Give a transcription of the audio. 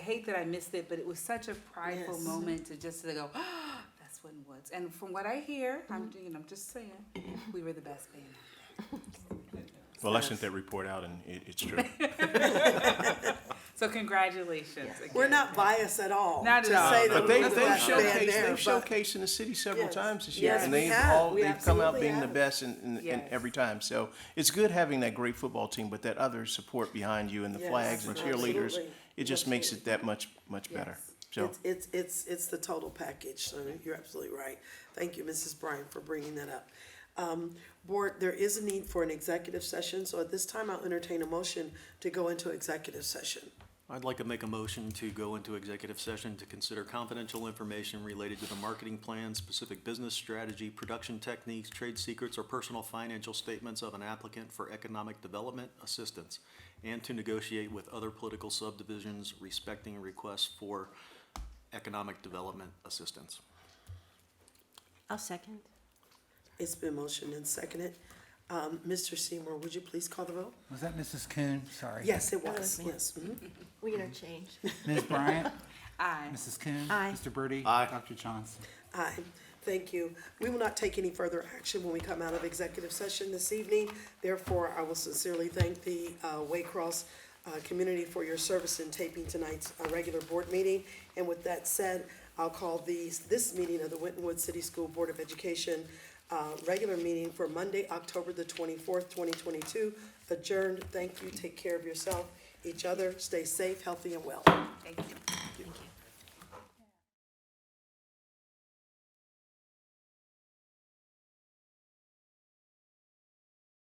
I hate that I missed it, but it was such a prideful Yes. moment to just to go, oh, that's Wooden Woods. And from what I hear, Mm-hmm. I'm, you know, I'm just saying, we were the best band. Well, I sent that report out and it, it's true. So congratulations again. We're not biased at all. Not at to all. say that But they, we're they've the best band showcased, there, they've but- showcased in the city several Yes. times this year. Yes, And we they've have. all, We they've come out absolutely being the have. best in, in, in Yes. every time. So it's good having that great football team, but that other support behind you and the Yes, flags and cheerleaders, absolutely. it just makes it that much, much better. Yes. So, It's, it's, it's, it's the total package, so you're absolutely right. Thank you, Mrs. Bryan, for bringing that up. Um, board, there is a need for an executive session, so at this time I'll entertain a motion to go into executive session. I'd like to make a motion to go into executive session to consider confidential information related to the marketing plan, specific business strategy, production techniques, trade secrets, or personal financial statements of an applicant for economic development assistance, and to negotiate with other political subdivisions respecting requests for economic development assistance. I'll second. It's been motioned and seconded. Um, Mr. Seymour, would you please call the vote? Was that Mrs. Coon? Sorry. Yes, it was, yes. mhm. We're gonna change. Ms. Bryant? Aye. Mrs. Coon? Aye. Mr. Birdie? Aye. Dr. Johnson? Aye, thank you. We will not take any further action when we come out of executive session this evening. Therefore, I will sincerely thank the uh, Waycross uh, community for your service in taping tonight's uh, regular board meeting. And with that said, I'll call these, this meeting of the Winton Woods City School Board of Education uh, regular meeting for Monday, October the twenty-fourth, twenty twenty-two adjourned. Thank you, take care of yourself, each other, stay safe, healthy, and well. Thank you. Thank you.